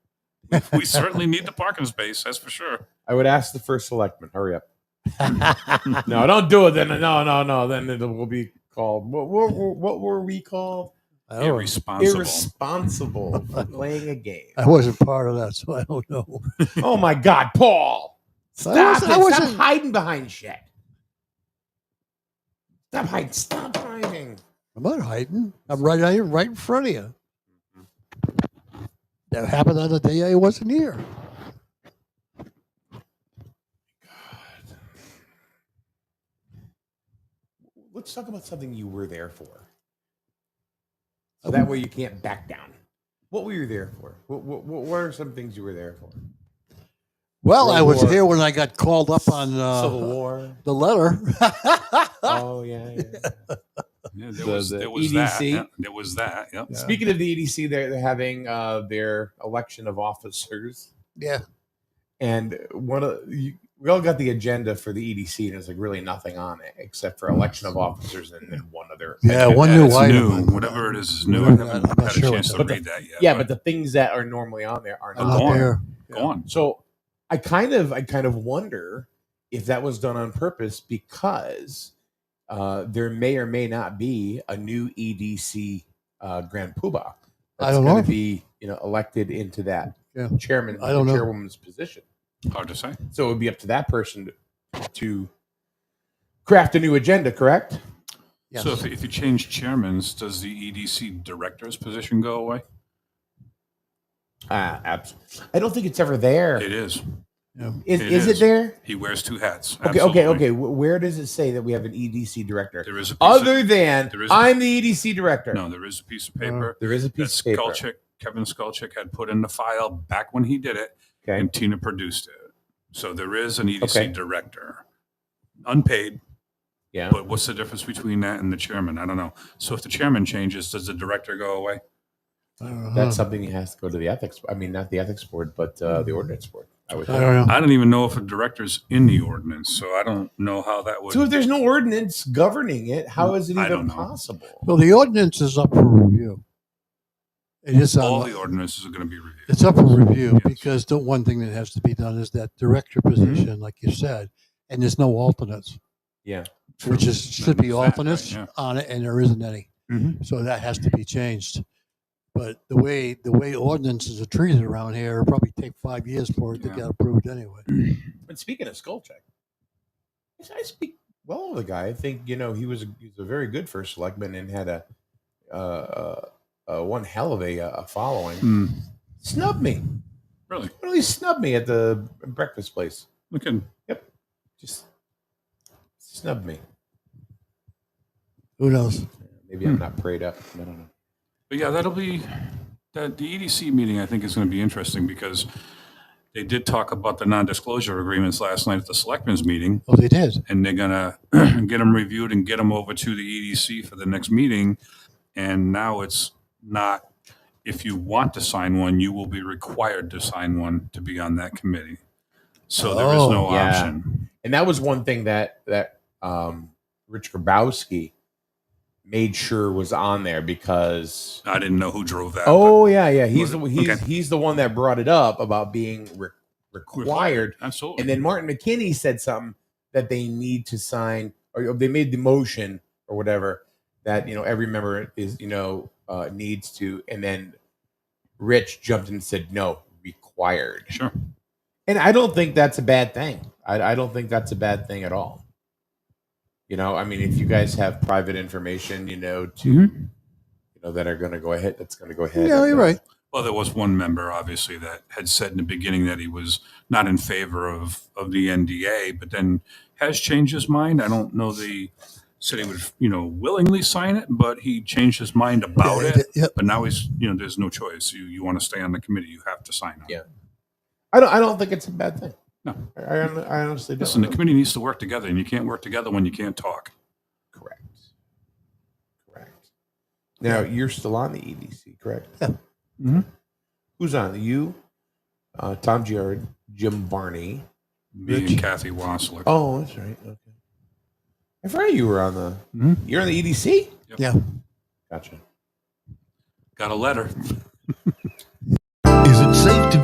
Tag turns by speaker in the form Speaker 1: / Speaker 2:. Speaker 1: we certainly need the parking space. That's for sure.
Speaker 2: I would ask the first selectman, hurry up. No, don't do it. Then no, no, no. Then it will be called. What, what, were- what were we called?
Speaker 3: I,
Speaker 1: Irresponsible.
Speaker 2: Irresponsible for playing a game.
Speaker 3: I wasn't part of that, so I don't know.
Speaker 2: Oh my God, Paul! Stop!
Speaker 3: wasn't-
Speaker 2: it.
Speaker 3: I
Speaker 2: Stop
Speaker 3: wasn't-
Speaker 2: hiding behind shit. Stop hiding. Stop hiding.
Speaker 3: I'm not hiding. I'm right out here, right in front of you. That happened on the day I wasn't here.
Speaker 2: Let's talk about something you were there for. So that way you can't back down. What were you there for? What, what, what what are some things you were there for?
Speaker 3: Well, I
Speaker 2: World
Speaker 3: was
Speaker 2: War-
Speaker 3: here when I got called up on
Speaker 2: Civil
Speaker 3: uh,
Speaker 2: War.
Speaker 3: the letter. Ah!
Speaker 2: Oh yeah. yeah.
Speaker 1: Yeah, there
Speaker 2: The-
Speaker 1: was,
Speaker 2: the
Speaker 1: there was that.
Speaker 2: EDC?
Speaker 1: Yeah, there was that. Yep.
Speaker 3: Yeah.
Speaker 2: Speaking of the EDC, they're, they're having uh, their election of officers,
Speaker 3: yeah,
Speaker 2: and one of you, we all got the agenda for the EDC, and there's like really nothing on it except for election of officers and then one other.
Speaker 3: yeah,
Speaker 2: agenda.
Speaker 3: one
Speaker 1: Yeah,
Speaker 3: new
Speaker 1: it's
Speaker 3: item.
Speaker 1: new. Whatever it is, is new. I
Speaker 3: I'm
Speaker 1: haven't
Speaker 3: not- I'm not
Speaker 1: had a
Speaker 3: sure
Speaker 1: chance
Speaker 3: what
Speaker 1: to
Speaker 2: the-
Speaker 1: read that yet.
Speaker 2: Yeah, but the things that are normally on there are
Speaker 3: I'm
Speaker 2: not.
Speaker 3: not
Speaker 1: Gone.
Speaker 3: there.
Speaker 1: go on.
Speaker 2: So I kind of I kind of wonder if that was done on purpose because uh, there may or may not be a new EDC uh, Grand Poobah that's
Speaker 3: I don't
Speaker 2: gonna
Speaker 3: know.
Speaker 2: be you know elected into that
Speaker 3: Yeah.
Speaker 2: chairman
Speaker 3: I don't know.
Speaker 2: chairwoman's position.
Speaker 1: Hard to say.
Speaker 2: So it would be up to that person to, to craft a new agenda, correct?
Speaker 3: Yes.
Speaker 1: So if, if you change chairmans, does the EDC director's position go away?
Speaker 2: Uh, absolutely. I don't think it's ever there.
Speaker 1: It is.
Speaker 3: yeah.
Speaker 2: Is,
Speaker 1: it
Speaker 2: is
Speaker 1: is.
Speaker 2: it there?
Speaker 1: He wears two hats.
Speaker 2: Okay, okay,
Speaker 1: Absolutely.
Speaker 2: okay. Wh- Where does it say that we have an EDC director?
Speaker 1: There is a piece
Speaker 2: Other
Speaker 1: of,
Speaker 2: than
Speaker 1: there is a-
Speaker 2: I'm the EDC director.
Speaker 1: no, there is a
Speaker 3: Uh.
Speaker 1: piece of paper
Speaker 2: There is a
Speaker 1: that
Speaker 2: piece of paper.
Speaker 1: Skulchik, Kevin Skulchik had put in the file back when he did it,
Speaker 2: Okay.
Speaker 1: and Tina produced it. So there is an EDC
Speaker 2: Okay.
Speaker 1: director, unpaid.
Speaker 2: Yeah.
Speaker 1: But what's the difference between that and the chairman? I don't know. So if the chairman changes, does the director go away?
Speaker 3: I don't know.
Speaker 2: That's something that has to go to the ethics. I mean, not the ethics board, but uh, the ordinance board. I would.
Speaker 3: I don't know.
Speaker 1: I don't even know if a director's in the ordinance, so I don't know how that would.
Speaker 2: So if there's no ordinance governing it, how is it
Speaker 1: Hmm. I don't
Speaker 2: even
Speaker 1: know.
Speaker 2: possible?
Speaker 3: Well, the ordinance is up for review. It is on.
Speaker 1: all the ordinances are going to be reviewed.
Speaker 3: It's up for review
Speaker 1: Yes. Mm-hmm.
Speaker 3: because the one thing that has to be done is that director position, like you said, and there's no alternates,
Speaker 2: Yeah.
Speaker 3: which is should be
Speaker 1: That, right,
Speaker 3: alternates
Speaker 1: yeah.
Speaker 3: on it, and there isn't any.
Speaker 1: Mhm.
Speaker 3: So that has to be changed. But the way the way ordinances are treated around here it'll probably take five years for it to
Speaker 1: Yeah.
Speaker 3: get approved anyway.
Speaker 2: But speaking of skull check, I speak well of the guy. I think you know he was a, he was a very good first selectman and had a uh, uh, uh, one hell of a, uh, a following.
Speaker 1: Hmm.
Speaker 2: Snub me.
Speaker 1: Really?
Speaker 2: Really snub me at the breakfast place.
Speaker 1: Look at
Speaker 2: Just snub me.
Speaker 3: Who knows?
Speaker 2: Maybe I'm not prayed up. I don't know.
Speaker 1: But yeah, that'll be, that, the EDC meeting, I think, is going to be interesting because they did talk about the non-disclosure agreements last night at the selectmen's meeting,
Speaker 3: Oh, they did.
Speaker 1: and they're going to get them reviewed and get them over to the EDC for the next meeting. And now it's not, if you want to sign one, you will be required to sign one to be on that committee. So there is
Speaker 3: Oh,
Speaker 1: no
Speaker 2: yeah.
Speaker 1: option.
Speaker 2: and that was one thing that that um, Rich Grabowski made sure was on there because
Speaker 1: I didn't know who drove that. but-
Speaker 2: oh yeah yeah he's the,
Speaker 1: Okay.
Speaker 2: he's he's the one that brought it up about being re- required,
Speaker 1: Absolutely.
Speaker 2: and then Martin McKinney said something that they need to sign or they made the motion or whatever that you know every member is you know uh, needs to, and then Rich jumped in and said no required,
Speaker 1: Sure.
Speaker 2: and I don't think that's a bad thing. I, I don't think that's a bad thing at all. You know, I mean, if you guys have private information, you know, to
Speaker 1: Mm-hmm.
Speaker 2: you know that are going to go ahead, that's going to go ahead.
Speaker 3: Yeah, you're right.
Speaker 1: Well, there was one member, obviously, that had said in the beginning that he was not in favor of, of the NDA, but then has changed his mind. I don't know the, said he would, you know, willingly sign it, but he changed his mind about
Speaker 3: Yeah,
Speaker 1: it.
Speaker 3: yeah.
Speaker 1: But now he's, you know, there's no choice. You, you want to stay on the committee, you have to sign on.
Speaker 2: Yeah. I don't. I don't think it's a bad thing.
Speaker 1: No.
Speaker 2: I, I hon- I honestly don't.
Speaker 1: Listen, the committee needs to work together, and you can't work together when you can't talk.
Speaker 2: correct. Correct. Now you're still on the EDC, correct? Mm-hmm.
Speaker 3: Yeah.
Speaker 1: Mhm.
Speaker 2: Who's on you? Uh, Tom Giard, Jim Barney.
Speaker 1: Me and
Speaker 2: Rich.
Speaker 1: Kathy Wassler.
Speaker 2: Oh, that's right. Okay. I forgot you were on the. E
Speaker 1: Mhm.
Speaker 2: You're on the EDC.
Speaker 1: Yep.
Speaker 3: Yeah.
Speaker 2: Gotcha.
Speaker 1: Got a letter.